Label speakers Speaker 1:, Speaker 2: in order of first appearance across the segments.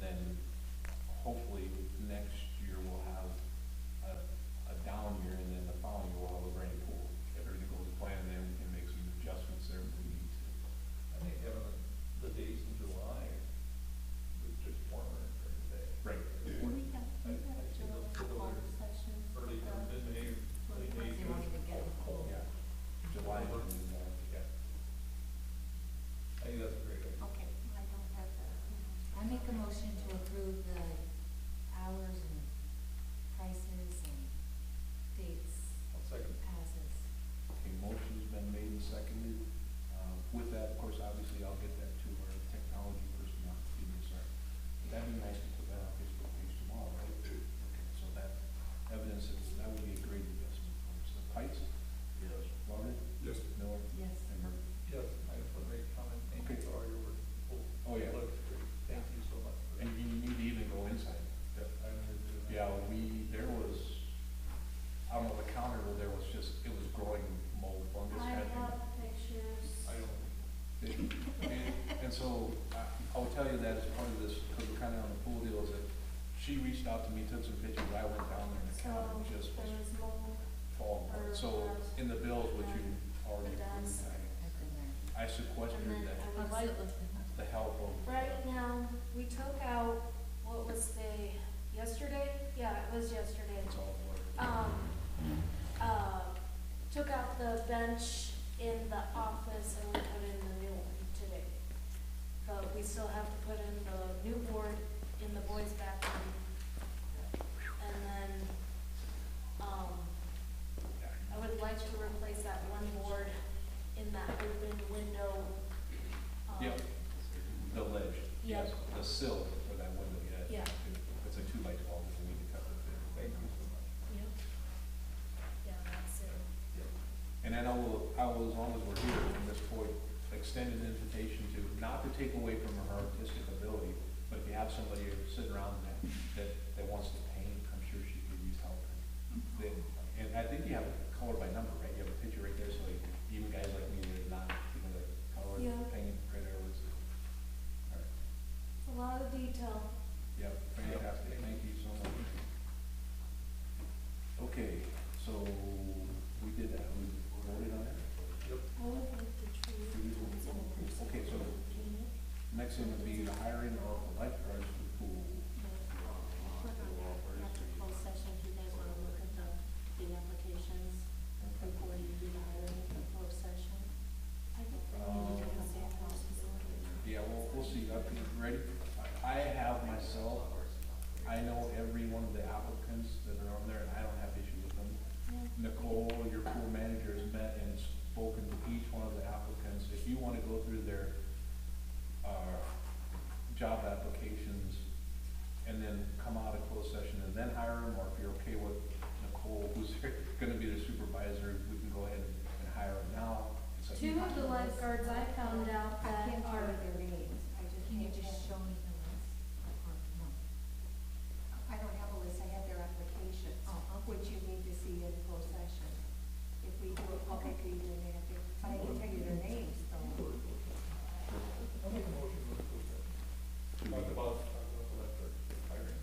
Speaker 1: then hopefully next year we'll have a, a down year, and then the following year we'll have a rain pool. If everything goes to plan, then we can make some adjustments there if we need to.
Speaker 2: I think having the, the days in July was just warmer during the day.
Speaker 1: Right.
Speaker 3: We have, we have general call sessions.
Speaker 2: Early,
Speaker 3: uh,
Speaker 2: mid-May,
Speaker 3: for
Speaker 2: late May,
Speaker 3: because they
Speaker 2: June.
Speaker 3: wanted to get a whole-
Speaker 1: Yeah. July, and, uh, yeah.
Speaker 2: I think that's a great idea.
Speaker 3: Okay, I don't have the.
Speaker 4: I make a motion to approve the hours and prices and dates
Speaker 2: One second.
Speaker 4: as is.
Speaker 1: Okay, motion's been made and seconded. Uh, With that, of course, obviously, I'll get that to our technology person, not to be concerned. But That'd be nice to put that on Facebook page tomorrow, right? Okay, So that evidence, is- that would be a great investment for us. So Pikes? Yes. Lauren?
Speaker 5: Yes.
Speaker 1: Miller?
Speaker 4: Yes.
Speaker 1: And Murphy?
Speaker 2: Yes, I just want to make a comment. Thank you
Speaker 1: Okay.
Speaker 2: for all your work.
Speaker 1: Oh, yeah.
Speaker 2: Looks great. Thank you so much. for that.
Speaker 1: And you need to even go inside.
Speaker 2: Yep, I remember doing that.
Speaker 1: Yeah, we, there was, I don't know, the counter, there was just, it was growing mold fungus.
Speaker 3: I
Speaker 1: had been-
Speaker 3: have pictures.
Speaker 2: I don't,
Speaker 1: And, and so, I, I will tell you that as part of this, because we're kind of on the pool deal, is that she reached out to me, took some pictures, I went down there and the counter
Speaker 3: So
Speaker 1: just was
Speaker 3: there was mold,
Speaker 1: falling apart. So, in the bills, which you
Speaker 3: um,
Speaker 1: already approved,
Speaker 4: I've been there.
Speaker 1: I
Speaker 3: and
Speaker 1: sequestered
Speaker 3: then
Speaker 1: that,
Speaker 3: I
Speaker 4: How
Speaker 3: was,
Speaker 4: does it look?
Speaker 1: the help of.
Speaker 3: right now, we took out, what was the, yesterday? Yeah, it was yesterday.
Speaker 1: It's all blurred.
Speaker 3: um, uh, took out the bench in the office and we put in the new one today. But we still have to put in the new board in the boys' bathroom. And then, um, I would like to replace that one board in that open window. um,
Speaker 1: Yep, the ledge, yes,
Speaker 3: Yeah.
Speaker 1: the sill for that window, yeah.
Speaker 3: Yeah.
Speaker 1: It's a two by twelve, we need to cover it.
Speaker 2: thank you so much.
Speaker 3: Yep. Yeah, that's it.
Speaker 1: And then I will, I will, as long as we're here from this point, extend an invitation to, not to take away from her artistic ability, but if you have somebody sitting around that, that, that wants to paint, I'm sure she could use help. Then, and I think you have a color by number, right? You have a picture right there, so like, even guys like me that are not, you know, like, color,
Speaker 3: Yeah.
Speaker 1: paint, printer, what's it? All right.
Speaker 3: A lot of detail.
Speaker 1: Yep, fantastic, thank you so much. Okay, so, we did that, we voted on it?
Speaker 3: I would like the tree.
Speaker 1: Okay, so next thing would be the hiring of a lifeguards for the pool.
Speaker 3: After closed session, if you guys wanna look at the, the applications before you do the hiring in the closed session. I think we need to have that process in order.
Speaker 1: Yeah, well, we'll see, I think, ready, I have myself, I know every one of the applicants that are on there, and I don't have issues with them. Nicole, your pool manager, has met and spoken to each one of the applicants. If you wanna go through their, uh, job applications and then come out of closed session and then hire them, or if you're okay with Nicole, who's gonna be the supervisor, we can go ahead and hire them now. It's up to you.
Speaker 6: Two of the lifeguards I found out
Speaker 4: I
Speaker 6: that
Speaker 4: can't
Speaker 6: are,
Speaker 4: remember their names, I just. Can you just show me the list? Or no?
Speaker 6: I don't have a list, I have their applications,
Speaker 4: Oh, okay.
Speaker 6: which you need to see in closed session. If we do it publicly, then they have to, but I can tell you their names, though.
Speaker 2: I'll make a motion to approve that. Talk about, talk about the lifeguard hiring.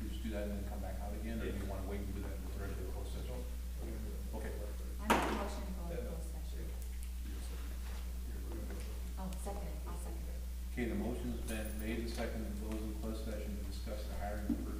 Speaker 1: You just do that and then come back out again, or do you wanna wait and do that with the rest of the closed session?
Speaker 2: We're gonna do that.
Speaker 1: Okay.
Speaker 2: Lifeguard.
Speaker 4: I make a motion to go
Speaker 2: Yeah.
Speaker 4: into closed session. Oh, second, I'll second.
Speaker 1: Okay, the motion's been made and seconded, those in closed session to discuss the hiring of per- uh,